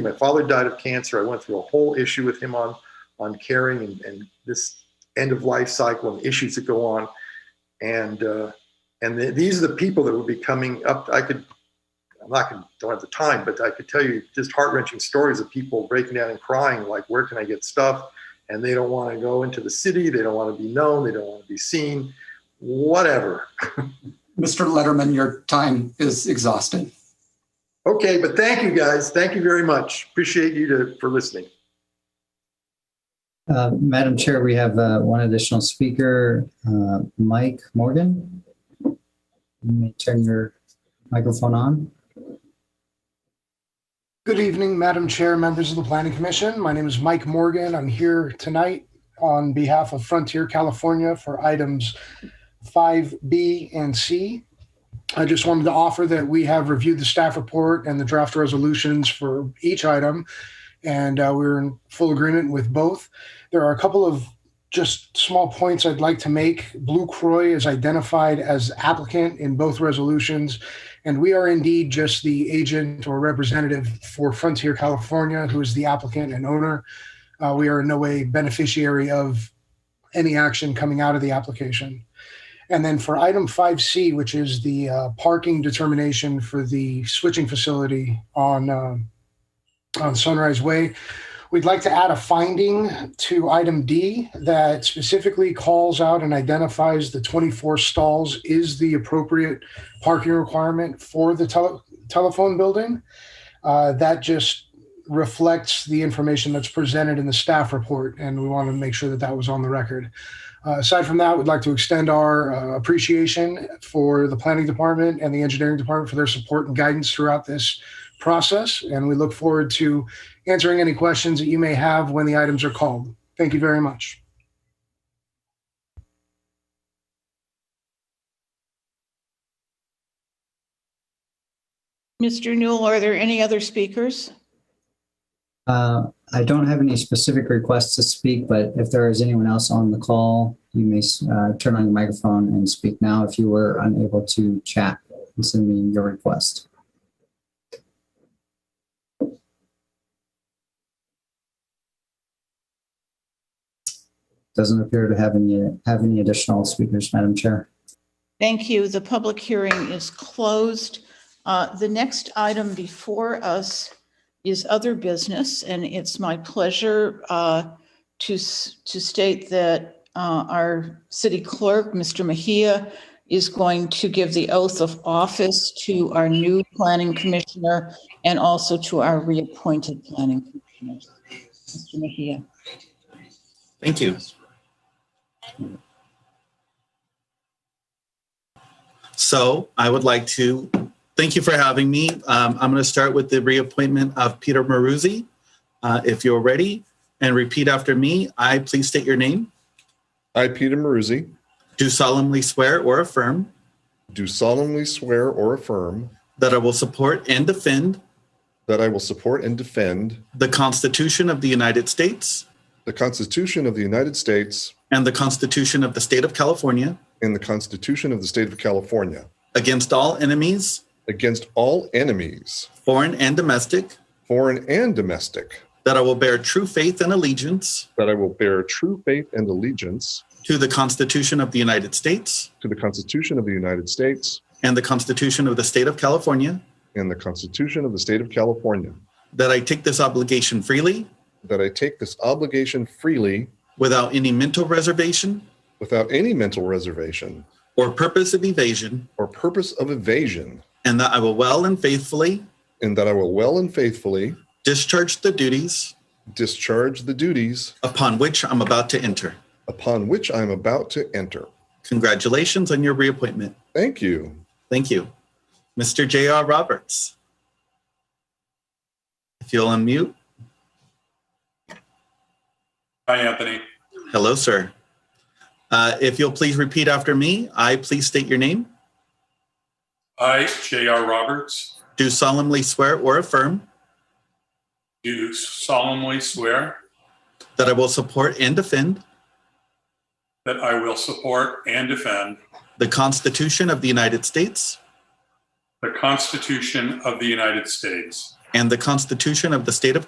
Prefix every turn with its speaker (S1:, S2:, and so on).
S1: My father died of cancer. I went through a whole issue with him on on caring and, and this end of life cycle and issues that go on. And uh, and the, these are the people that would be coming up. I could I'm not going don't have the time, but I could tell you just heart wrenching stories of people breaking down and crying, like where can I get stuff? And they don't want to go into the city. They don't want to be known. They don't want to be seen. Whatever.
S2: Mr. Letterman, your time is exhausted.
S1: Okay, but thank you guys. Thank you very much. Appreciate you to, for listening.
S3: Uh, Madam Chair, we have uh, one additional speaker, uh, Mike Morgan. You may turn your microphone on.
S4: Good evening, Madam Chair, members of the Planning Commission. My name is Mike Morgan. I'm here tonight on behalf of Frontier California for items 5B and C. I just wanted to offer that we have reviewed the staff report and the draft resolutions for each item, and uh, we're in full agreement with both. There are a couple of just small points I'd like to make. Blue Croy is identified as applicant in both resolutions, and we are indeed just the agent or representative for Frontier California, who is the applicant and owner. Uh, we are in no way beneficiary of any action coming out of the application. And then for item 5C, which is the uh, parking determination for the switching facility on, uh, on Sunrise Way, we'd like to add a finding to item D that specifically calls out and identifies the 24 stalls is the appropriate parking requirement for the tele- telephone building. Uh, that just reflects the information that's presented in the staff report, and we want to make sure that that was on the record. Uh, aside from that, we'd like to extend our uh, appreciation for the planning department and the engineering department for their support and guidance throughout this process. And we look forward to answering any questions that you may have when the items are called. Thank you very much.
S5: Mr. Newell, are there any other speakers?
S3: Uh, I don't have any specific requests to speak, but if there is anyone else on the call, you may uh, turn on your microphone and speak now if you were unable to chat and send me your request. Doesn't appear to have any have any additional speakers, Madam Chair.
S5: Thank you. The public hearing is closed. Uh, The next item before us is other business, and it's my pleasure uh, to s- to state that uh, our city clerk, Mr. Mejia, is going to give the oath of office to our new planning commissioner and also to our reappointed planning commissioner. Mr. Mejia.
S6: Thank you. So I would like to thank you for having me. Um, I'm going to start with the reappointment of Peter Maruzzi. Uh, if you're ready and repeat after me, I please state your name.
S7: I, Peter Maruzzi,
S6: Do solemnly swear or affirm
S7: do solemnly swear or affirm
S6: that I will support and defend
S7: that I will support and defend
S6: the Constitution of the United States
S7: the Constitution of the United States
S6: and the Constitution of the State of California
S7: and the Constitution of the State of California
S6: against all enemies,
S7: against all enemies,
S6: foreign and domestic,
S7: foreign and domestic,
S6: that I will bear true faith and allegiance
S7: that I will bear true faith and allegiance
S6: to the Constitution of the United States
S7: to the Constitution of the United States
S6: and the Constitution of the State of California,
S7: and the Constitution of the State of California,
S6: that I take this obligation freely
S7: that I take this obligation freely
S6: without any mental reservation
S7: without any mental reservation
S6: or purpose of evasion,
S7: or purpose of evasion,
S6: and that I will well and faithfully
S7: and that I will well and faithfully
S6: discharge the duties
S7: discharge the duties
S6: upon which I'm about to enter.
S7: upon which I am about to enter.
S6: Congratulations on your reappointment.
S7: Thank you.
S6: Thank you. Mr. J.R. Roberts. If you'll unmute.
S8: Hi, Anthony.
S6: Hello, sir. Uh, if you'll please repeat after me, I please state your name.
S8: I, J.R. Roberts,
S6: Do solemnly swear or affirm
S8: do solemnly swear
S6: that I will support and defend
S8: that I will support and defend
S6: the Constitution of the United States
S8: the Constitution of the United States
S6: and the Constitution of the State of